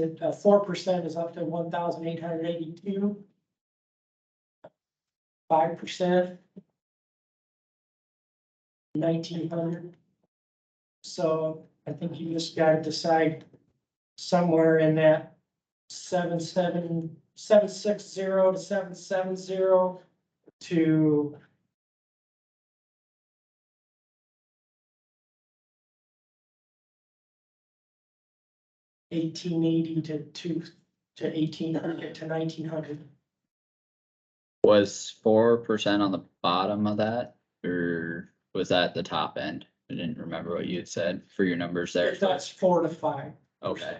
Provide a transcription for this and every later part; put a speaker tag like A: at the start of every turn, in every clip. A: that uh, four percent is up to one thousand eight hundred eighty-two. Five percent. Nineteen hundred. So I think you just gotta decide somewhere in that seven, seven, seven, six, zero to seven, seven, zero to eighteen eighty to two, to eighteen hundred to nineteen hundred.
B: Was four percent on the bottom of that, or was that the top end? I didn't remember what you had said for your numbers there.
A: That's four to five.
B: Okay,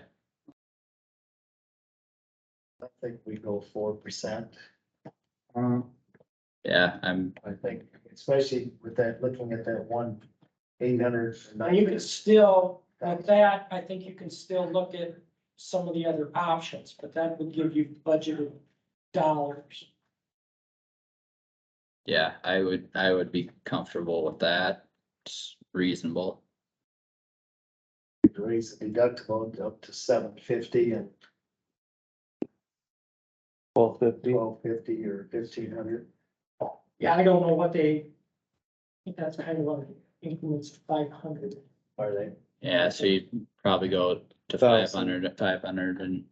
C: I think we go four percent. Um,
B: yeah, I'm,
C: I think, especially with that, looking at that one eight hundred.
A: Now, you can still, with that, I think you can still look at some of the other options, but that would give you budgeted dollars.
B: yeah, I would, I would be comfortable with that. It's reasonable.
C: Raise the deductible up to seven fifty and
D: Twelve fifty,
C: twelve fifty or fifteen hundred.
A: Yeah, I don't know what they, I think that's kind of what increments five hundred.
C: Are they?
B: Yeah, so you'd probably go to five
D: Thousand.
B: hundred, five hundred and.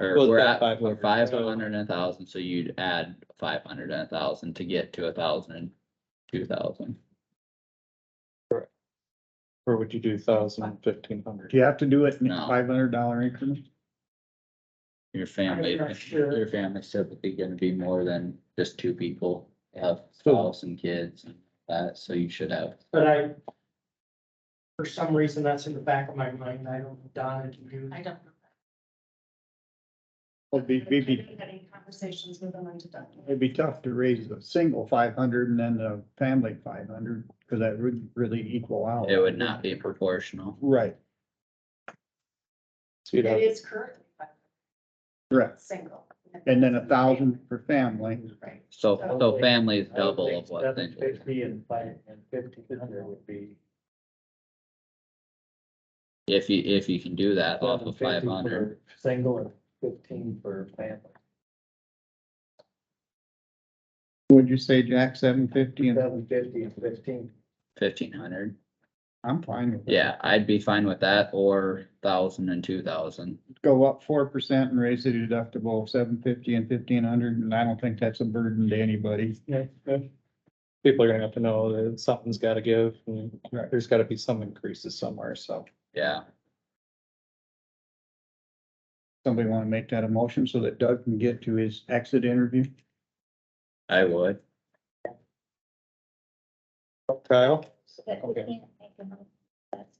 B: Or
D: Well,
B: we're
D: it's
B: at,
D: about
B: we're
D: 500,
B: five
D: so-
B: hundred and a thousand, so you'd add five hundred and a thousand to get to a thousand and two thousand.
D: or would you do thousand fifteen hundred?
E: Do you have to do it in
B: No.
E: five hundred dollar increments?
B: Your family,
A: not sure.
B: your family's typically gonna be more than just two people, You have
D: So-
B: spouse and kids and that, so you should have.
A: But I, for some reason, that's in the back of my mind. I don't, know, Donna, do you?
F: I don't.
E: It'd Oh, be, it'd be,
F: Having conversations with them on deductible.
E: it'd be tough to raise a single five hundred and then a family five hundred, because that would really equal out.
B: It would not be proportional.
E: Right,
D: So you'd have,
F: It is currently five,
E: correct.
F: single.
E: And then a thousand for family.
F: Right.
B: So, so
C: Okay.
B: family is double of what.
C: Seven
B: single is.
C: fifty and five and fifteen hundred would be.
B: If you, if you can do that off of
C: 750
B: five hundred,
C: for Single and fifteen for family.
E: Would you say, Jack, seven fifty? And
C: Seven fifty and fifteen.
B: fifteen hundred.
E: I'm fine with that.
B: Yeah, I'd be fine with that or thousand and two thousand.
E: Go up four percent and raise the deductible seven fifty and fifteen hundred, and I don't think that's a burden to anybody.
D: yeah, yeah. People are gonna have to know that something's gotta give, and
E: Right.
D: there's gotta be some increases somewhere, so.
B: Yeah,
E: Somebody want to make that a motion so that Doug can get to his exit interview?
B: I would.
D: Kyle?
G: But we
D: Okay.
G: can't make a motion. That's-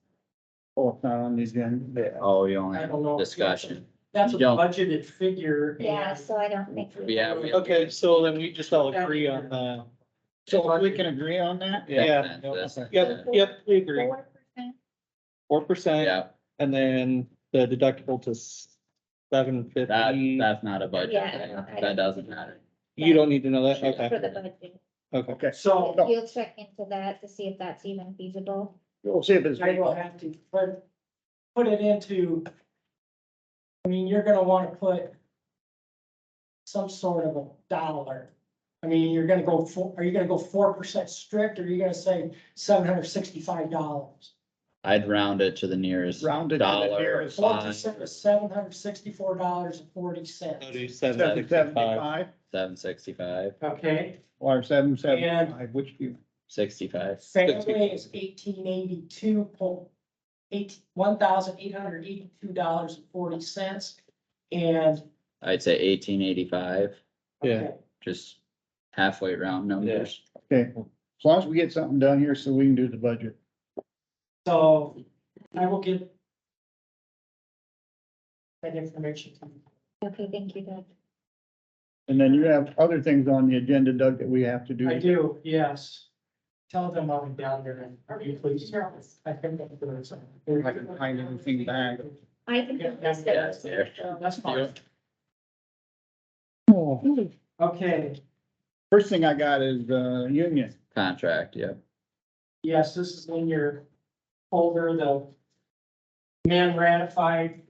E: Oh, it's not on the agenda.
B: Oh, you only
A: I
B: have
A: don't know.
B: discussion.
A: That's a
B: You don't-
A: budgeted figure. and-
G: Yeah, so I don't think. we
B: Yeah,
G: can-
B: we-
D: Okay, so then we just all agree on the,
E: So if we can agree on that?
D: yeah,
B: That's-
D: yep, yep, we agree,
G: Four percent,
D: four percent,
B: Yeah,
D: and then the deductible to seven
B: that,
D: fifty.
B: that's not a budget.
G: Yeah,
B: thing.
G: I
B: That
G: don't-
B: doesn't matter.
D: You don't need to know that,
G: For
D: okay,
G: the budget.
D: okay.
E: Okay,
A: So.
E: no.
G: You'll check into that to see if that's even feasible.
E: we'll see if it's.
A: I will have to put, put it into. I mean, you're gonna wanna put. Some sort of a dollar. I mean, you're gonna go four, are you gonna go four percent strict, or are you gonna say seven hundred sixty-five dollars?
B: I'd round it to the nearest
E: Rounded to the
B: dollar.
E: nearest
A: Four
B: line,
A: percent is seven hundred sixty-four dollars and forty cents.
D: So do
E: Seven
D: 775.
E: seventy-five
B: Seven sixty-five,
A: Okay,
E: or seven seventy-five, which do you,
B: sixty-five.
A: family is eighteen eighty-two point eight, one thousand eight hundred eighty-two dollars and forty cents. And.
B: I'd say eighteen eighty-five,
D: Yeah.
B: just halfway round numbers.
E: okay, as long as we get something done here so we can do the budget.
A: So I will give that information to you.
G: Okay, thank you, Doug.
E: And then you have other things on the agenda, Doug, that we have to do.
A: I do, yes. Tell them I'll be down there and are you pleased?
F: Yes.
A: I think I'm Uh, doing something.
E: If I can find anything back.
G: I can.
A: Yeah,
G: do this.
B: yeah, it's there.
G: So,
A: That's fine.
E: Oh,
A: Okay,
E: First thing I got is, uh, union.
B: Contract, yeah.
A: yes, this is in your folder, the man ratified